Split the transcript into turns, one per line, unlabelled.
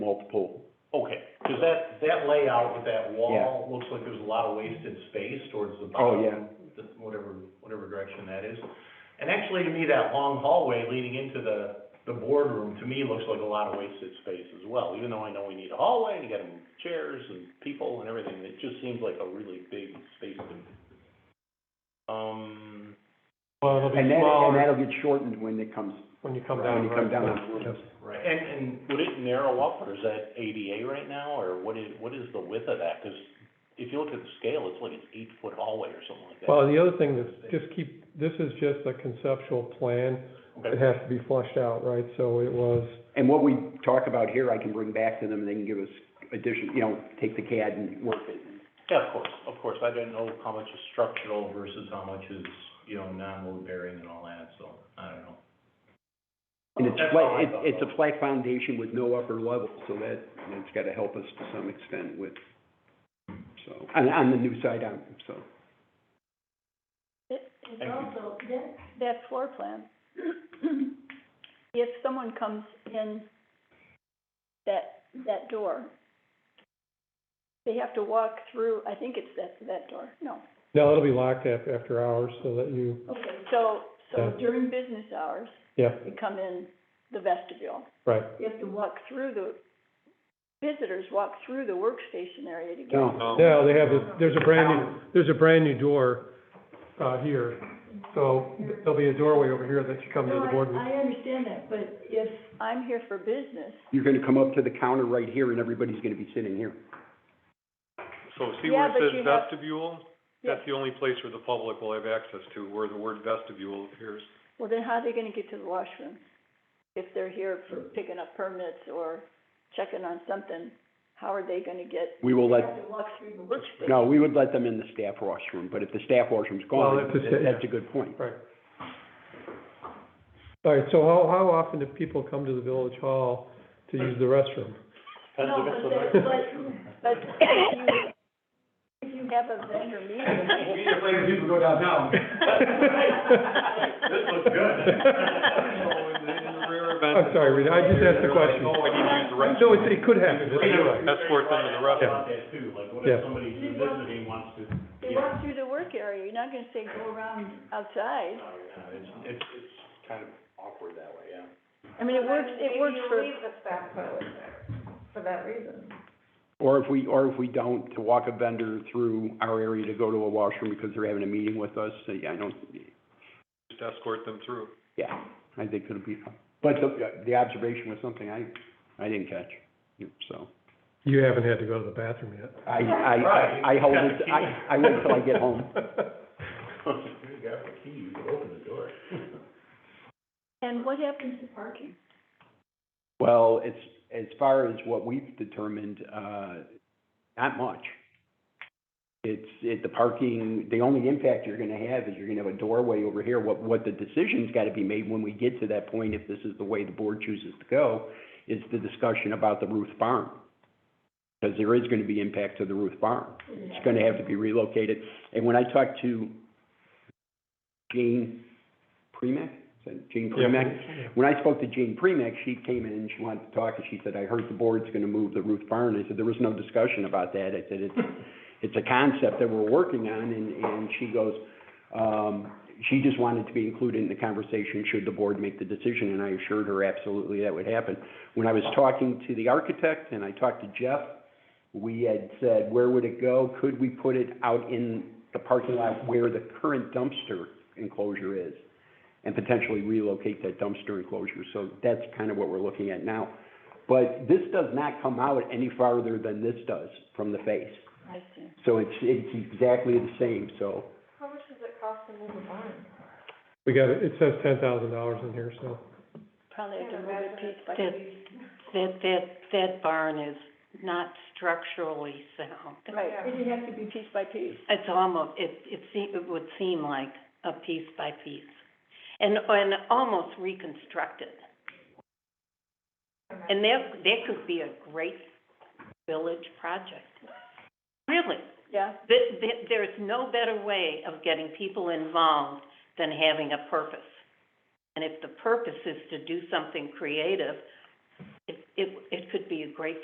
multiple.
Okay, because that, that layout with that wall
Yeah.
looks like there's a lot of wasted space towards the
Oh,
bottom.
yeah.
the- Whatever, whatever direction that is. And actually, to me, that long hallway leading into the, the boardroom, to me, looks like a lot of wasted space as well. Even though I know we need a hallway, and you gotta move chairs and people and everything, it just seems like a really big space to me. Um,
Well, it'll
And
be
that, and
smaller
that'll get shortened when it comes,
when you come down.
when you come
right?
down on the roof.
right, and, and would it narrow up, or is that ADA right now, or what is, what is the width of that? Because if you look at the scale, it's like it's eight-foot hallway or something like that.
Well, the other thing is, just keep, this is just a conceptual plan. It
Okay,
has to be fleshed out, right? So it was,
And what we talk about here, I can bring back to them, and they can give us addition, you know, take the CAD and work it.
yeah, of course, of course, I didn't know how much is structural versus how much is, you know, non-load bearing and all that, so, I don't know.
And it's
That's how I
flat,
thought
it- it's
about
a flat foundation with no upper level, so that, that's gotta help us to some extent with, so, on, on the new side, on, so.
It- It's
Thank you.
also, that, that floor plan, if someone comes in that, that door, they have to walk through, I think it's that, that door, no.
no, it'll be locked up after hours so that you,
Okay, so, so
Yeah.
during business hours,
yeah,
you come in the vestibule.
right.
You have to walk through the, visitors walk through the workstation area to get.
Um,
No.
No, they have, a- there's a brand new, there's a brand new door, uh, here. So there'll be a doorway over here that you come to
No,
the
I-
boardroom.
I understand that, but if I'm here for business,
You're gonna come up to the counter right here, and everybody's gonna be sitting here.
So see
Yeah,
where it
but you
says
have-
vestibule?
Yeah.
That's the only place where the public will have access to, where the word vestibule appears.
Well, then how are they gonna get to the washroom? If they're here for picking up permits or checking on something, how are they gonna get?
We will
They
let,
have to walk through the workspace.
no, we would let them in the staff washroom, but if the staff washroom's
Well,
gone,
if it's-
that's a good point.
Right. All right, so how, how often do people come to the village hall to use the restroom?
Depends if
No,
it's
but
a-
they- but, but if you, if you have a vendor meeting,
We just letting people go downtown. This looks
And
good.
then the rare event
I'm sorry, Rita, I just asked the question.
Oh, I need to use the right.
No, it, it could happen, it's you're right.
That's worth it in the rough.
About that too, like what if
Yeah.
somebody who's visiting wants to,
they walk through the work area, you're not gonna say go around outside.
no, no, it's, it's, it's kind of awkward that way, yeah.
I mean, it works, it works for,
Maybe you leave the staff toilet there for that reason.
Or if we, or if we don't, to walk a vendor through our area to go to a washroom because they're having a meeting with us, so, yeah, I don't,
Just escort them through.
yeah, I think it'll be, but the, the observation was something I, I didn't catch, so.
You haven't had to go to the bathroom yet.
I, I, I hold it, I, I wait till I get home.
You got the key, you can open the door.
and what happens to parking?
Well, it's, as far as what we've determined, uh, not much. It's, it, the parking, the only impact you're gonna have is you're gonna have a doorway over here. What, what the decision's gotta be made when we get to that point, if this is the way the board chooses to go, is the discussion about the roof barn. Because there is gonna be impact to the roof barn. It's gonna have to be relocated. And when I talked to Jane Premack, is that Jane Premack? When I spoke to Jean Premack, she came in and she wanted to talk, and she said, I heard the board's gonna move the roof barn. I said, there was no discussion about that. I said, it's, it's a concept that we're working on, and, and she goes, um, she just wanted to be included in the conversation should the board make the decision, and I assured her absolutely that would happen. When I was talking to the architect and I talked to Jeff, we had said, where would it go? Could we put it out in the parking lot where the current dumpster enclosure is? and potentially relocate that dumpster enclosure. So that's kind of what we're looking at now. But this does not come out any farther than this does from the face.
I see.
So it's, it's exactly the same, so.
How much does it cost to move a barn?
We got, it it says ten thousand dollars in here, so.
Probably have to move it piece by
Did-
piece.
That, that, that barn is not structurally sound.
Right,
Yeah.
it'd have to be piece by piece.
It's almost, it, it seem, it would seem like a piece by piece. And, and almost reconstructed. And that, that could be a great village project. Really,
Yeah,
th- th- there's no better way of getting people involved than having a purpose. And if the purpose is to do something creative, it, it it, it could be a great